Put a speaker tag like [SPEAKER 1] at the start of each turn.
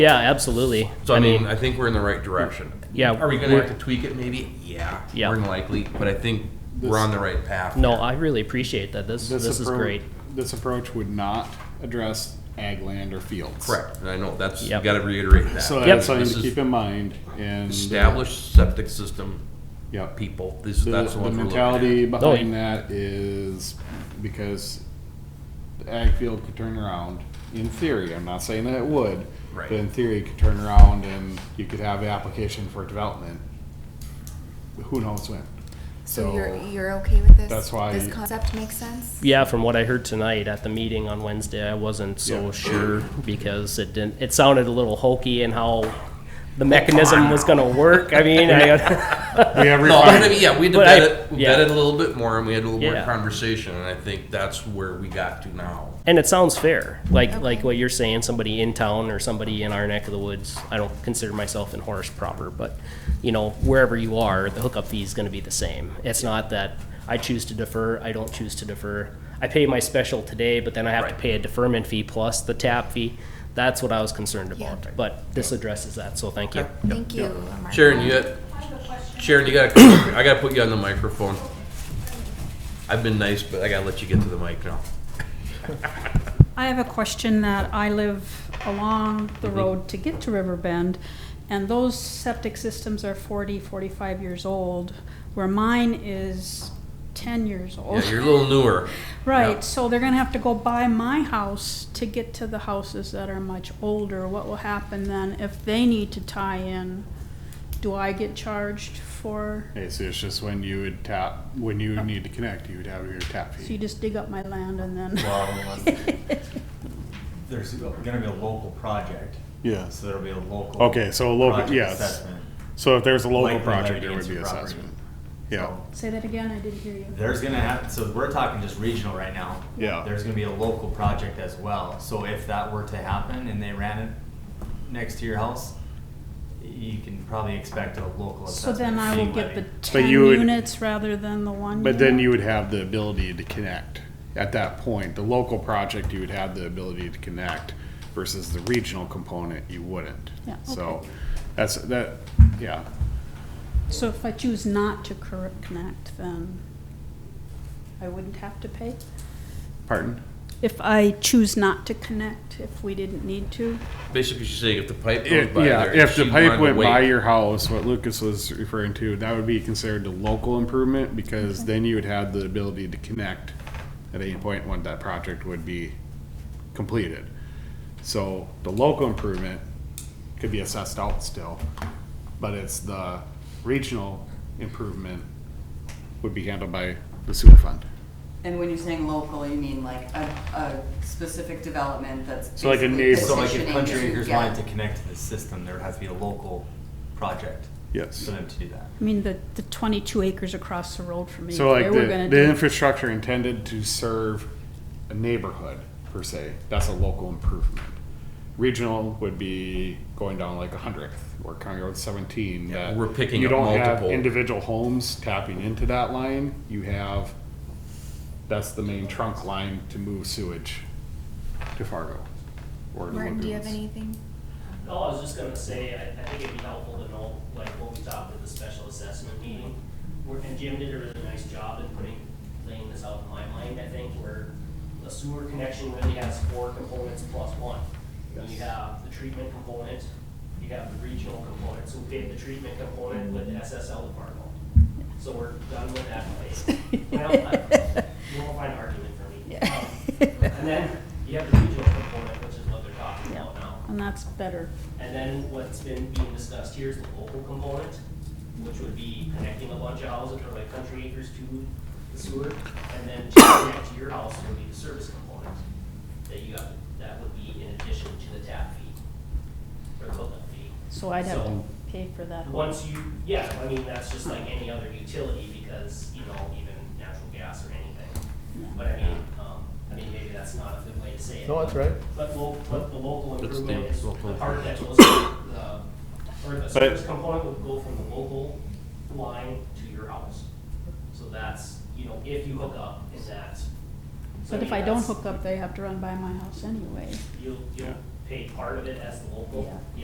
[SPEAKER 1] Yeah, absolutely.
[SPEAKER 2] So I mean, I think we're in the right direction.
[SPEAKER 1] Yeah,
[SPEAKER 2] Are we gonna have
[SPEAKER 1] we're-
[SPEAKER 2] to tweak it maybe? Yeah.
[SPEAKER 1] Yeah.
[SPEAKER 2] More than likely, but I think we're on the right path.
[SPEAKER 1] no, I really appreciate that. This this, is
[SPEAKER 3] appro-
[SPEAKER 1] great.
[SPEAKER 3] This approach would not address ag land or fields.
[SPEAKER 2] Correct, and I know, that's, you
[SPEAKER 1] Yep.
[SPEAKER 2] gotta reiterate that.
[SPEAKER 3] So
[SPEAKER 1] Yep.
[SPEAKER 3] that's something
[SPEAKER 2] This
[SPEAKER 3] to
[SPEAKER 2] is
[SPEAKER 3] keep in mind and. uh,
[SPEAKER 2] Established septic system
[SPEAKER 3] Yep.
[SPEAKER 2] people, this,
[SPEAKER 3] The,
[SPEAKER 2] that's the
[SPEAKER 3] the
[SPEAKER 2] one we're looking
[SPEAKER 3] mentality
[SPEAKER 2] at.
[SPEAKER 1] Oh,
[SPEAKER 3] behind that is because the ag field could turn around, in theory, I'm not saying that it would.
[SPEAKER 2] Right.
[SPEAKER 3] But in theory, it could turn around and you could have an application for development. Who knows when?
[SPEAKER 4] So you're,
[SPEAKER 3] So,
[SPEAKER 4] you're okay with this?
[SPEAKER 3] that's why-
[SPEAKER 4] This concept makes sense?
[SPEAKER 1] Yeah, from what I heard tonight at the meeting on Wednesday, I wasn't so
[SPEAKER 3] Yeah.
[SPEAKER 1] sure because it didn't. It sounded a little hokey and how the mechanism was going to work. I mean, I,
[SPEAKER 3] we have
[SPEAKER 2] No, I
[SPEAKER 3] refined,
[SPEAKER 2] mean, yeah, we had to
[SPEAKER 1] But I-
[SPEAKER 2] vet it, we
[SPEAKER 1] yeah.
[SPEAKER 2] vetted a little bit more and we had a little more
[SPEAKER 1] Yeah.
[SPEAKER 2] conversation, and I think that's where we got to now.
[SPEAKER 1] and it sounds fair, like like what you're saying. Somebody in town or somebody in our neck of the woods. I don't consider myself in Horace proper, but you know, wherever you are, the hookup fee is going to be the same. It's not that I choose to defer. I don't choose to defer. I pay my special today, but then I have to
[SPEAKER 2] Right.
[SPEAKER 1] pay a deferment fee plus the tap fee. That's what I was concerned about.
[SPEAKER 4] Yeah.
[SPEAKER 1] But this addresses that, so thank you.
[SPEAKER 4] Thank you, Mark.
[SPEAKER 2] Sharon, you got, Sharon, you gotta, come up here. I gotta put you on the microphone. I've been nice, but I gotta let you get to the mic now.
[SPEAKER 5] I have a question that I live along
[SPEAKER 2] Mm-hmm.
[SPEAKER 5] the road to get to Riverbend, and those septic systems are 40, 45 years old, where mine is 10 years old.
[SPEAKER 2] Yeah, you're a little newer.
[SPEAKER 5] Right, so they're gonna have to go by my house to get to the houses that are much older. What will happen then if they need to tie in? Do I get charged for,
[SPEAKER 3] okay, so it's just when you would tap, when you would need to connect, you would have your tap
[SPEAKER 5] so you
[SPEAKER 3] fee.
[SPEAKER 5] just dig up my land and then,
[SPEAKER 6] Well, there's gonna be a local project,
[SPEAKER 3] Yes.
[SPEAKER 6] so there'll be a local.
[SPEAKER 3] Okay, so a local-
[SPEAKER 6] project
[SPEAKER 3] yes.
[SPEAKER 6] assessment.
[SPEAKER 3] So if there's a local
[SPEAKER 6] Likely
[SPEAKER 3] project, there would
[SPEAKER 6] litigants
[SPEAKER 3] be
[SPEAKER 6] or property.
[SPEAKER 3] assessment. Yeah,
[SPEAKER 5] say that again, I didn't hear you.
[SPEAKER 6] There's gonna have, so we're talking just regional right now.
[SPEAKER 3] Yeah.
[SPEAKER 6] There's gonna be a local project as well, so if that were to happen and they ran it next to your house, you can probably expect a local
[SPEAKER 5] So
[SPEAKER 6] assessment.
[SPEAKER 5] then I will
[SPEAKER 6] fee
[SPEAKER 5] get the
[SPEAKER 6] levy.
[SPEAKER 5] ten
[SPEAKER 3] you would-
[SPEAKER 5] units rather than the one.
[SPEAKER 3] but then
[SPEAKER 5] unit?
[SPEAKER 3] you would have the ability to connect at that point. The local project, you would have the ability to connect versus the regional component, you wouldn't.
[SPEAKER 5] Yeah,
[SPEAKER 3] So that's, that, yeah,
[SPEAKER 5] So if I choose not to cor- connect, then I wouldn't have to pay?
[SPEAKER 3] pardon?
[SPEAKER 5] If I choose not to connect, if we didn't need to?
[SPEAKER 2] Basically, she's saying if the pipe goes by
[SPEAKER 3] Yeah,
[SPEAKER 2] there,
[SPEAKER 3] if the
[SPEAKER 2] she wanted
[SPEAKER 3] pipe
[SPEAKER 2] to
[SPEAKER 3] went
[SPEAKER 2] wait.
[SPEAKER 3] by your house, what Lucas was referring to, that would be considered a local improvement because then you would have the ability to connect at any point when that project would be completed. So the local improvement could be assessed out still, but it's the regional improvement would be handled by the sewer fund.
[SPEAKER 7] And when you're saying local, you mean like a, a specific development that's.
[SPEAKER 3] So like a
[SPEAKER 7] basically
[SPEAKER 3] neighbor.
[SPEAKER 6] So like if
[SPEAKER 7] petitioning
[SPEAKER 6] Country
[SPEAKER 7] to
[SPEAKER 6] Acres
[SPEAKER 7] get-
[SPEAKER 6] wanted to connect to the system, there would have to be a local project
[SPEAKER 3] Yes.
[SPEAKER 6] for them to do that.
[SPEAKER 5] I mean, the, the twenty-two acres across the road from me,
[SPEAKER 3] So
[SPEAKER 5] they
[SPEAKER 3] like
[SPEAKER 5] were
[SPEAKER 3] the,
[SPEAKER 5] gonna
[SPEAKER 3] the
[SPEAKER 5] do.
[SPEAKER 3] infrastructure intended to serve a neighborhood per se, that's a local improvement. Regional would be going down like a hundredth or County Road seventeen.
[SPEAKER 2] Yeah,
[SPEAKER 3] that
[SPEAKER 2] we're picking
[SPEAKER 3] you
[SPEAKER 2] up
[SPEAKER 3] don't have
[SPEAKER 2] multiple.
[SPEAKER 3] Individual homes tapping into that line, you have, that's the main trunk line to move sewage to Fargo. or to
[SPEAKER 4] Martin, do you have
[SPEAKER 3] lagoons.
[SPEAKER 4] anything?
[SPEAKER 1] No, I was just gonna say, I, I think it'd be helpful to know, like, when we talked at the special assessment meeting, where, and Jim did a really nice job in putting, laying this out in my mind, I think, where the sewer connection really has four components plus one. You have the treatment component, you have the regional component, so we did the treatment component with the SSL department. So we're done with that place. Well, I- you won't find an argument for me. Um, And then you have the regional component, which is what they're talking about now.
[SPEAKER 5] And that's better.
[SPEAKER 1] And then what's been being discussed here is the local component, which would be connecting a bunch of houses or like country acres to the sewer. And then to connect to your house would be the service component that you got, that would be in addition to the tap fee or the hookup fee.
[SPEAKER 5] So I'd have to
[SPEAKER 1] So-
[SPEAKER 5] pay for that. whole-
[SPEAKER 1] Once you, yeah, I mean, that's just like any other utility because, you know, even natural gas or anything. But I mean, um, I mean, maybe that's not a good way to say it.
[SPEAKER 8] No, that's right.
[SPEAKER 1] But lo, but the local
[SPEAKER 2] That's the
[SPEAKER 1] improvement is the
[SPEAKER 2] local
[SPEAKER 1] part that goes, from the- or the service component would go from the local line to your house. So that's, you know, if you hook up in that. so
[SPEAKER 5] But if
[SPEAKER 1] mean,
[SPEAKER 5] I don't
[SPEAKER 1] that's-
[SPEAKER 5] hook up, they have to run by my house anyway.
[SPEAKER 1] You'll, you'll pay part of it as the local,
[SPEAKER 5] Yeah.
[SPEAKER 1] yeah,